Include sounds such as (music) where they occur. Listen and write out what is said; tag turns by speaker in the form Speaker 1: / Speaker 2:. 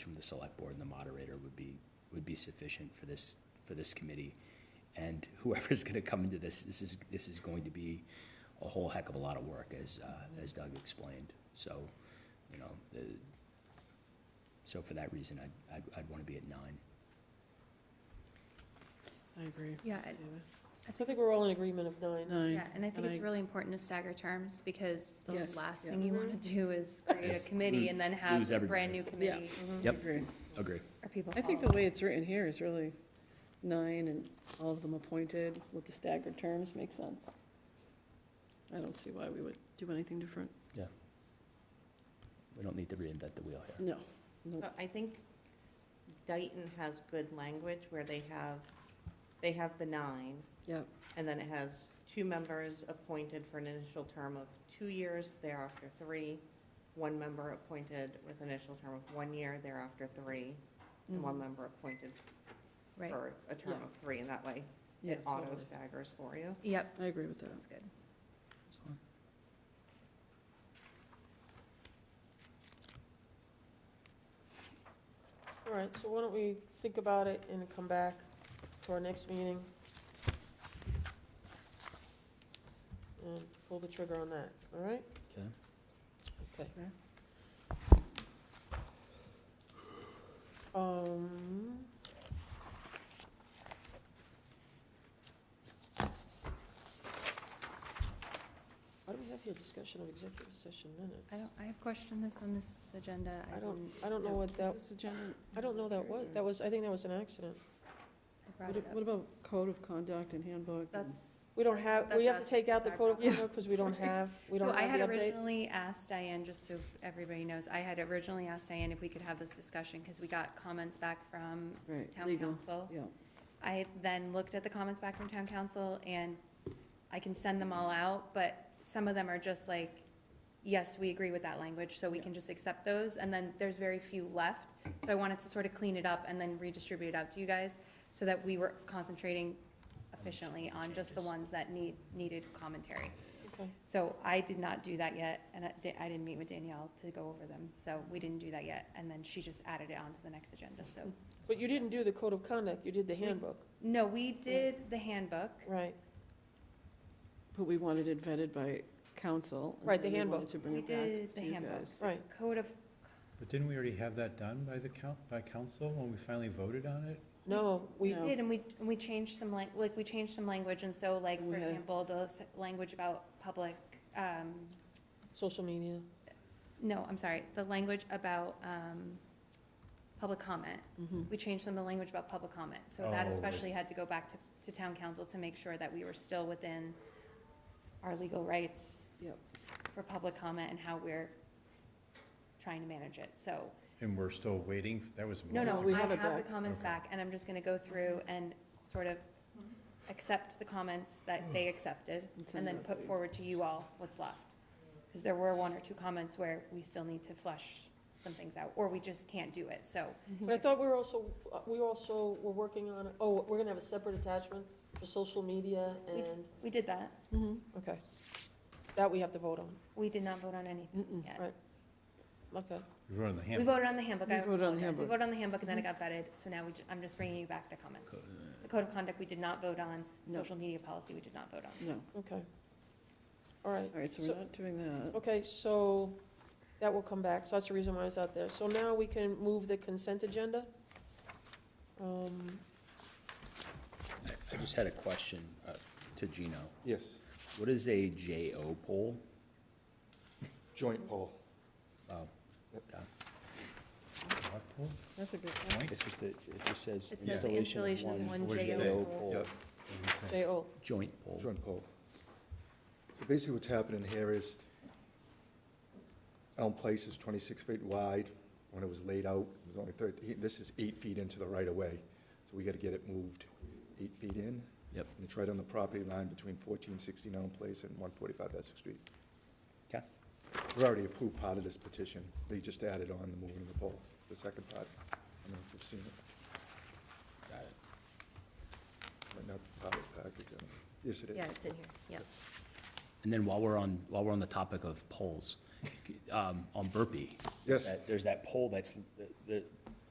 Speaker 1: from the select board and the moderator would be, would be sufficient for this, for this committee. And (laughs) whoever's gonna come into this, this is, this is going to be a whole heck of a lot of work, as, uh, as Doug explained. So, you know, the, so for that reason, I'd, I'd, I'd wanna be at nine.
Speaker 2: I agree.
Speaker 3: Yeah,
Speaker 2: David.
Speaker 3: and- I
Speaker 2: I
Speaker 3: think,
Speaker 2: think we're all in agreement of nine.
Speaker 3: yeah,
Speaker 2: Nine.
Speaker 3: and I think
Speaker 2: and
Speaker 3: it's
Speaker 2: I-
Speaker 3: really important to stagger terms, because the
Speaker 2: Yes,
Speaker 3: last
Speaker 2: yeah.
Speaker 3: thing you wanna
Speaker 2: Mhm.
Speaker 3: do is create
Speaker 1: Yes,
Speaker 3: a committee and then have
Speaker 1: lose
Speaker 3: a
Speaker 1: everybody.
Speaker 3: brand-new committee,
Speaker 1: Yep.
Speaker 2: Agree.
Speaker 1: Agree.
Speaker 3: or people
Speaker 2: I think
Speaker 3: follow.
Speaker 2: the way it's written here is really nine and all of them appointed with the staggered terms makes sense. I don't see why we would do anything different.
Speaker 1: We don't need to reinvent the wheel here.
Speaker 2: No. Nope.
Speaker 3: Uh,
Speaker 4: But I think Dayton has good language where they have, they have the nine.
Speaker 2: Yep.
Speaker 4: And then it has two members appointed for an initial term of two years, thereafter three. One member appointed with initial term of one year, thereafter three. And one
Speaker 2: Mhm.
Speaker 4: member appointed
Speaker 3: Right,
Speaker 4: for a term
Speaker 2: Yeah.
Speaker 4: of three, and that way
Speaker 2: Yeah,
Speaker 4: it auto
Speaker 2: totally.
Speaker 4: staggers for you.
Speaker 3: yep,
Speaker 2: I agree with that.
Speaker 3: that's good.
Speaker 1: That's fine.
Speaker 2: All right, so why don't we think about it and come back to our next meeting? And pull the trigger on that, all right?
Speaker 1: Okay.
Speaker 2: Okay. Um. Why do we have here discussion of executive session minutes?
Speaker 3: I don't, I have questioned this on this agenda.
Speaker 2: I don't, I don't know what that, I don't know that was, that was, I think that was an accident.
Speaker 3: I brought it up.
Speaker 2: about code of conduct and handbook?
Speaker 3: That's,
Speaker 2: We don't have, we
Speaker 3: That's
Speaker 2: have to
Speaker 3: us.
Speaker 2: take out the
Speaker 3: That's
Speaker 2: code
Speaker 3: our
Speaker 2: of conduct because
Speaker 3: (laughs)
Speaker 2: we don't
Speaker 3: Yeah.
Speaker 2: have, we
Speaker 3: so
Speaker 2: don't
Speaker 3: I had
Speaker 2: have the update.
Speaker 3: originally asked Diane, just so everybody knows, I had originally asked Diane if we could have this discussion, because we got comments back from
Speaker 2: Right,
Speaker 3: town council.
Speaker 2: yeah.
Speaker 3: I then looked at the comments back from town council, and I can send them all out, but some of them are just like, yes, we agree with that language, so we can just accept those, and then there's very few left. So I wanted to sort of clean it up and then redistribute it out to you guys, so that we were concentrating efficiently on just the
Speaker 1: Changes.
Speaker 3: ones that need, needed commentary.
Speaker 2: Okay.
Speaker 3: So I did not do that yet, and I di- I didn't meet with Danielle to go over them, so we didn't do that yet, and then she just added it onto the next agenda, so.
Speaker 2: But you didn't do the code of conduct, you did the
Speaker 3: We-
Speaker 2: handbook,
Speaker 3: No, we did the handbook,
Speaker 2: right?
Speaker 5: But we wanted it vetted by council. and
Speaker 2: Right, the
Speaker 5: then we wanted
Speaker 2: handbook.
Speaker 5: to bring
Speaker 3: we
Speaker 5: it back
Speaker 3: did the
Speaker 5: to you
Speaker 3: handbook.
Speaker 5: guys.
Speaker 2: Right.
Speaker 3: Code of,
Speaker 6: But didn't we already have that done by the coun, by council when we finally voted on it?
Speaker 2: No, we,
Speaker 3: we
Speaker 2: did.
Speaker 3: did, and we, and we changed some, lang- like, we changed some language, and so, like,
Speaker 2: We
Speaker 3: for
Speaker 2: had-
Speaker 3: example, the s- language about public, um,
Speaker 2: social
Speaker 3: (laughs)
Speaker 2: media.
Speaker 3: no, I'm sorry, the language about, um, public comment.
Speaker 2: Mhm.
Speaker 5: Mm-hmm.
Speaker 3: We changed some of the language about public comment, so that
Speaker 6: Oh,
Speaker 3: especially had to go back to, to town council to make sure that we were still within our legal rights
Speaker 2: Yep.
Speaker 3: for public comment and how we're trying to manage it, so.
Speaker 6: And we're still waiting, f- that was.
Speaker 3: No, no,
Speaker 6: months
Speaker 2: we
Speaker 3: I
Speaker 2: have it
Speaker 3: have the
Speaker 2: back.
Speaker 3: comments
Speaker 6: Okay.
Speaker 3: back, and I'm just gonna go through and sort of accept the comments that they accepted,
Speaker 2: And send
Speaker 3: and then
Speaker 2: it out to
Speaker 3: put
Speaker 2: you.
Speaker 3: forward to you all what's left. Because there were one or two comments where we still need to flush some things out, or we just can't do it, so.
Speaker 2: But I thought we were also, uh, we also were working on, oh, we're gonna have a separate attachment for social media
Speaker 3: We- Mm-hmm.
Speaker 2: and,
Speaker 3: We did that,
Speaker 2: okay. That we have to vote on,
Speaker 3: we did not vote on anything
Speaker 5: Mm-mm.
Speaker 3: yet.
Speaker 2: Right. okay.
Speaker 6: We voted on the
Speaker 3: We
Speaker 6: handbook.
Speaker 3: voted on the handbook,
Speaker 5: We
Speaker 3: I
Speaker 5: voted on the
Speaker 3: apologize, we
Speaker 5: handbook.
Speaker 3: voted on the handbook, and then it got vetted, so now we, ju- I'm just bringing you back the comments.
Speaker 1: uh,
Speaker 3: The code of conduct, we did not vote on,
Speaker 5: No.
Speaker 3: social media policy, we did not vote on.
Speaker 5: No,
Speaker 2: Okay. All right,
Speaker 5: all right, so
Speaker 2: So-
Speaker 5: we're not doing that.
Speaker 2: okay, so that will come back, so that's the reason why it's out there. So now we can move the consent agenda. Um,
Speaker 1: I, I just had a question, uh, to Gino.
Speaker 7: Yes,
Speaker 1: What is a JO poll?
Speaker 7: joint poll.
Speaker 1: Oh,
Speaker 6: What poll?
Speaker 5: That's a good
Speaker 6: Joint?
Speaker 1: it's just, that- it just says
Speaker 3: It says the
Speaker 1: installation of one
Speaker 7: What'd you say?
Speaker 3: JO poll.
Speaker 7: Yeah,
Speaker 2: J.O.,
Speaker 1: joint poll.
Speaker 7: joint poll. So Basically, what's happening here is Elm Place is 26 feet wide. When it was laid out, it was only 13, this is eight feet into the right-of-way. So we got to get it moved eight feet in.
Speaker 1: Yep.
Speaker 7: And it's right on the property line between 1416 Elm Place and 145 Essex Street.
Speaker 1: Okay.
Speaker 7: We've already approved part of this petition. They just added on the moving of the pole. It's the second part. I don't know if you've seen it.
Speaker 1: Got it.
Speaker 7: Might not be part of the package, I don't know. Yes, it is.
Speaker 3: Yeah, it's in here, yep.
Speaker 1: And then while we're on, while we're on the topic of polls, um, on Burpee.
Speaker 7: Yes.
Speaker 1: that- There's that poll that's, the,